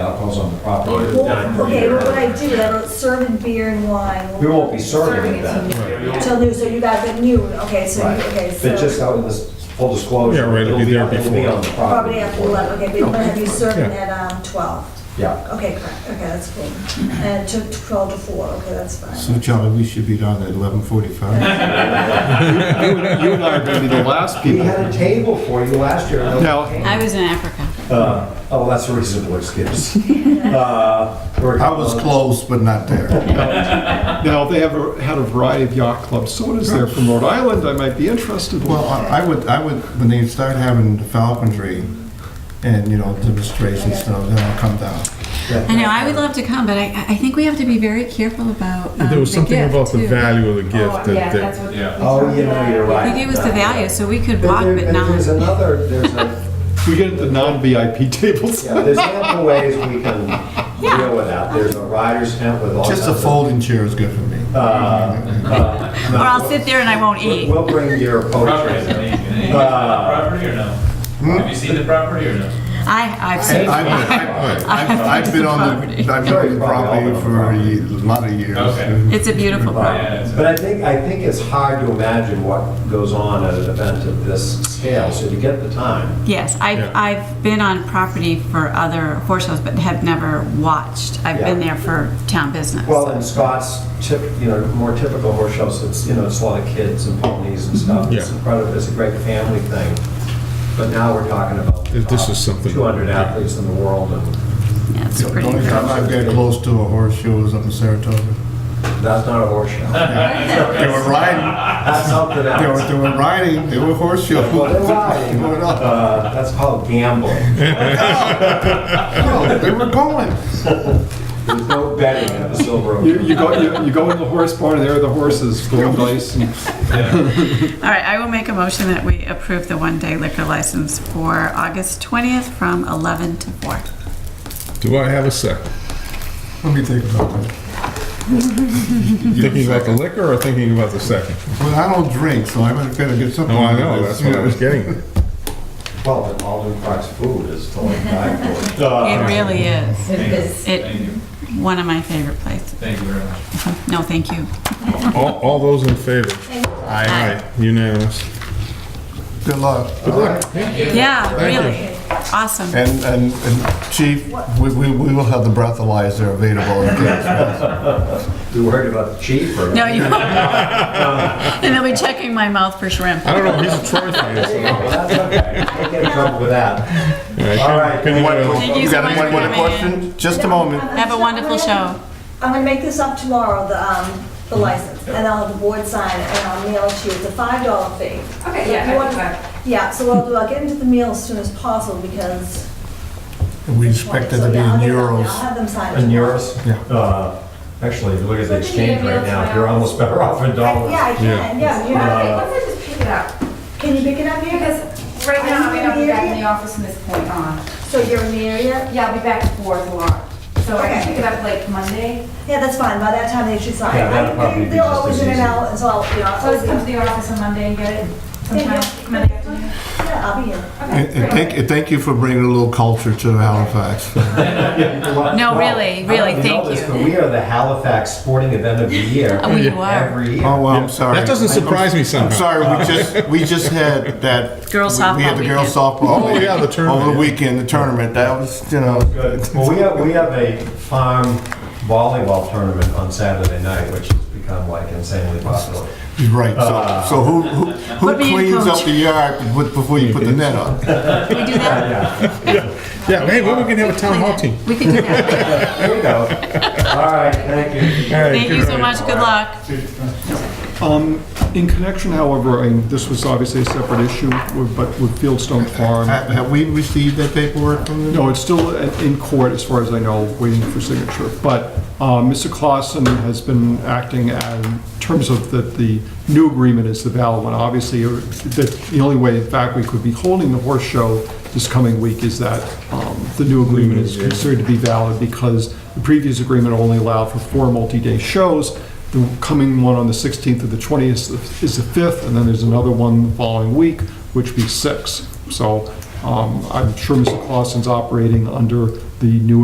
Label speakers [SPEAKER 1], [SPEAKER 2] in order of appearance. [SPEAKER 1] alcohol's on the property.
[SPEAKER 2] Well,
[SPEAKER 3] Not for
[SPEAKER 2] Okay,
[SPEAKER 3] beer.
[SPEAKER 2] what would I do? I wrote serving beer and wine.
[SPEAKER 1] We won't be serving it then.
[SPEAKER 2] Till noon, so you guys at noon, okay, so,
[SPEAKER 1] Right.
[SPEAKER 2] you- okay, so.
[SPEAKER 1] But just out of this full disclosure.
[SPEAKER 4] Yeah, right, it'll be there
[SPEAKER 1] on- It'll be
[SPEAKER 4] before.
[SPEAKER 1] on the
[SPEAKER 2] Probably
[SPEAKER 1] property.
[SPEAKER 2] after eleven, okay, but you're gonna have you serving
[SPEAKER 4] Yeah.
[SPEAKER 2] at, um, twelve.
[SPEAKER 1] Yeah.
[SPEAKER 2] Okay, correct, okay, that's cool. And to twelve to four, okay, that's fine.
[SPEAKER 5] So Charlie, we should be down at eleven forty-five.
[SPEAKER 6] You and I are going to be the last
[SPEAKER 1] We
[SPEAKER 6] people.
[SPEAKER 1] had a table for you last year. and
[SPEAKER 6] Now-
[SPEAKER 1] nobody came.
[SPEAKER 7] I was in Africa.
[SPEAKER 1] Uh, Oh, that's a reasonable excuse. Uh, we're-
[SPEAKER 5] I was close, but not there.
[SPEAKER 6] Now, they have a- had a variety of yacht clubs, so what is there from Rhode Island I might be interested in?
[SPEAKER 5] Well, I I would, I would, when they start having the falconry and, you know, demonstrations, stuff, then I'll come down.
[SPEAKER 7] I know, I would love to come, but I, I think we have to be very careful about um, the
[SPEAKER 4] There was something
[SPEAKER 7] gift,
[SPEAKER 4] about the
[SPEAKER 7] too.
[SPEAKER 4] value of the gift that, that
[SPEAKER 1] Oh, you know, you're right.
[SPEAKER 7] He gave us the value, so we could
[SPEAKER 1] But
[SPEAKER 7] walk
[SPEAKER 1] there-
[SPEAKER 7] but
[SPEAKER 1] and There's
[SPEAKER 7] not.
[SPEAKER 1] another, there's a,
[SPEAKER 6] We get the non-VIP tables.
[SPEAKER 1] yeah, there's ample ways we can deal with that. There's a rider's tent with all.
[SPEAKER 5] Just a
[SPEAKER 1] kinds of-
[SPEAKER 5] folding chair is good for me.
[SPEAKER 7] Or I'll sit there and I won't
[SPEAKER 1] We'll
[SPEAKER 7] eat.
[SPEAKER 1] we'll bring your
[SPEAKER 8] Property, is
[SPEAKER 1] poetry.
[SPEAKER 8] it? Have you seen the property or no? Have you seen the property or no?
[SPEAKER 7] I, I've
[SPEAKER 5] I've,
[SPEAKER 7] seen.
[SPEAKER 5] I've- I've, I've been on the, I've been on the property for a ye- a lot of years.
[SPEAKER 8] Okay.
[SPEAKER 7] It's a beautiful property.
[SPEAKER 8] Yeah, it's-
[SPEAKER 1] But I think, I think it's hard to imagine what goes on at an event of this scale, so to get the time.
[SPEAKER 7] Yes, I've,
[SPEAKER 4] Yeah.
[SPEAKER 7] I've been on property for other horse shows, but have never watched. I've been
[SPEAKER 1] Yeah.
[SPEAKER 7] there for town business.
[SPEAKER 1] Well, in Scott's tip, you know, more typical horse shows, it's, you know, it's a lot of kids and ponies and stuff. It's
[SPEAKER 4] Yeah.
[SPEAKER 1] incredible, it's a great family thing. But now we're talking about uh,
[SPEAKER 4] If this is something-
[SPEAKER 1] two hundred athletes in the world, and
[SPEAKER 7] Yeah, it's
[SPEAKER 5] The
[SPEAKER 7] pretty.
[SPEAKER 5] only time I've got close to a horse show was up in Saratoga.
[SPEAKER 1] that's not a horse show.
[SPEAKER 5] They were riding,
[SPEAKER 1] That's something
[SPEAKER 5] they were,
[SPEAKER 1] else.
[SPEAKER 5] they were riding, they were horse shows.
[SPEAKER 1] Well, they're riding.
[SPEAKER 5] They were not-
[SPEAKER 1] Uh, That's called gambling.
[SPEAKER 5] no, They were going.
[SPEAKER 1] There's no betting at the Silver Oak.
[SPEAKER 6] You, you go, you, you go in the horse barn, there are the horses, gold dice, and
[SPEAKER 7] All right, I will make a motion that we approve the one-day liquor license for August 20th from 11 to 4.
[SPEAKER 4] do I have a second?
[SPEAKER 5] Let me think about that.
[SPEAKER 4] Thinking about the liquor or thinking about the second?
[SPEAKER 5] Well, I don't drink, so I better better get something.
[SPEAKER 4] Oh, I
[SPEAKER 5] out of
[SPEAKER 4] know,
[SPEAKER 5] this.
[SPEAKER 4] that's what I was getting at.
[SPEAKER 1] Well, and Alden Park's food is totally dying for.
[SPEAKER 7] It really is.
[SPEAKER 8] Thank you.
[SPEAKER 7] It-
[SPEAKER 8] Thank you,
[SPEAKER 7] One of my favorite places.
[SPEAKER 8] thank you very much.
[SPEAKER 7] No, thank you.
[SPEAKER 4] All, all those in favor? Aye. Aye, unanimous.
[SPEAKER 5] Good luck.
[SPEAKER 4] Good luck.
[SPEAKER 7] Yeah, really. Awesome.
[SPEAKER 5] And, and, and chief, we, we, we will have the breathalyzer available in case.
[SPEAKER 1] You worried about the chief or?
[SPEAKER 7] No, you. And they'll be checking my mouth for shrimp.
[SPEAKER 4] I don't know, he's a Troy fan. so-
[SPEAKER 1] oh, Well, that's okay. I get in trouble with that.
[SPEAKER 4] Yeah,
[SPEAKER 1] All right.
[SPEAKER 4] can- can
[SPEAKER 5] What-
[SPEAKER 4] you, uh,
[SPEAKER 7] Thank you so
[SPEAKER 5] got
[SPEAKER 7] much for
[SPEAKER 5] one- one
[SPEAKER 7] coming
[SPEAKER 5] question? Just a moment.
[SPEAKER 7] Have a wonderful show.
[SPEAKER 2] I'm gonna make this up tomorrow, the, um, the
[SPEAKER 5] Mm-hmm.
[SPEAKER 2] license, and I'll have the board sign it, and I'll mail it to you. It's a five dollar fee.
[SPEAKER 9] Okay,
[SPEAKER 2] So if
[SPEAKER 9] yeah,
[SPEAKER 2] you
[SPEAKER 9] I
[SPEAKER 2] want-
[SPEAKER 9] can try.
[SPEAKER 2] Yeah, so what I'll do, I'll get into the mail as soon as possible, because.
[SPEAKER 5] We expect it
[SPEAKER 2] So,
[SPEAKER 5] to be
[SPEAKER 2] yeah, I'll
[SPEAKER 5] in
[SPEAKER 2] get it out.
[SPEAKER 5] euros.
[SPEAKER 2] I'll have them sign it.
[SPEAKER 1] And yours?
[SPEAKER 5] Yeah.
[SPEAKER 1] Uh, Actually, if you look at the
[SPEAKER 9] Look at the
[SPEAKER 1] exchange right
[SPEAKER 9] emails
[SPEAKER 1] now,
[SPEAKER 9] now.
[SPEAKER 1] you're almost better off in dollars.
[SPEAKER 2] Yeah, I can, yeah, you have,
[SPEAKER 9] Okay, let's just pick it up,
[SPEAKER 2] can you pick it up here?
[SPEAKER 9] because right now, I mean, I'll be back in the office from this point on.
[SPEAKER 2] So you're in the area?
[SPEAKER 9] Yeah, I'll be back at four tomorrow, so I can pick it up like Monday.
[SPEAKER 2] Yeah, that's fine, by that time they should sign.
[SPEAKER 1] Yeah, that'll probably be
[SPEAKER 2] They're
[SPEAKER 1] just
[SPEAKER 2] always
[SPEAKER 1] as
[SPEAKER 2] in and
[SPEAKER 1] easy.
[SPEAKER 2] out, and so I'll, you know,
[SPEAKER 9] So I'll just come to
[SPEAKER 2] I'll,
[SPEAKER 9] the office on Monday and get it
[SPEAKER 2] Yeah,
[SPEAKER 9] sometime
[SPEAKER 2] yeah.
[SPEAKER 9] Monday afternoon.
[SPEAKER 2] yeah, I'll be here.
[SPEAKER 5] And, and thank, and thank you for bringing a little culture to Halifax.
[SPEAKER 7] No, really, really,
[SPEAKER 1] I don't know if
[SPEAKER 7] thank
[SPEAKER 1] this,
[SPEAKER 7] you.
[SPEAKER 1] But we are the Halifax sporting event of the year.
[SPEAKER 7] We are.
[SPEAKER 1] Every year.
[SPEAKER 5] Oh, well, I'm sorry.
[SPEAKER 4] That doesn't surprise me
[SPEAKER 5] I'm
[SPEAKER 4] somehow.
[SPEAKER 5] sorry, we just, we just had that.
[SPEAKER 7] Girls
[SPEAKER 5] We had
[SPEAKER 7] softball
[SPEAKER 5] the girls
[SPEAKER 7] weekend.
[SPEAKER 5] softball.
[SPEAKER 4] Oh, yeah, the tournament,
[SPEAKER 5] Over
[SPEAKER 4] yeah.
[SPEAKER 5] the weekend, the tournament, that was, you know.
[SPEAKER 1] Good. Well, we have, we have a farm volleyball tournament on Saturday night, which has become like insanely popular.
[SPEAKER 5] Right, so, so who, who, who
[SPEAKER 7] Put me in,
[SPEAKER 5] cleans up
[SPEAKER 7] coach.
[SPEAKER 5] the yard with- before you put the net up?
[SPEAKER 7] Can we do that?
[SPEAKER 4] Yeah, hey, maybe we can have a town hall team.
[SPEAKER 7] We can do that.
[SPEAKER 1] There you go. All right, thank you.
[SPEAKER 7] Thank you so much. Good luck.
[SPEAKER 6] Um, In connection, however, and this was obviously a separate issue, with- but with Fieldstone Farm,
[SPEAKER 5] Have have we received that paperwork from them?
[SPEAKER 6] no, it's still in in court, as far as I know, waiting for signature. But uh, Mr. Clausen has been acting as- in terms of that the new agreement is the valid one. Obviously, or- the the only way, in fact, we could be holding the horse show this coming week is that um, the new agreement is considered to be valid because the previous agreement only allowed for four multi-day shows. The coming one on the 16th or the 20th is the 5th, and then there's another one the following week, which would be 6. So um, I'm sure Mr. Clausen's operating under the new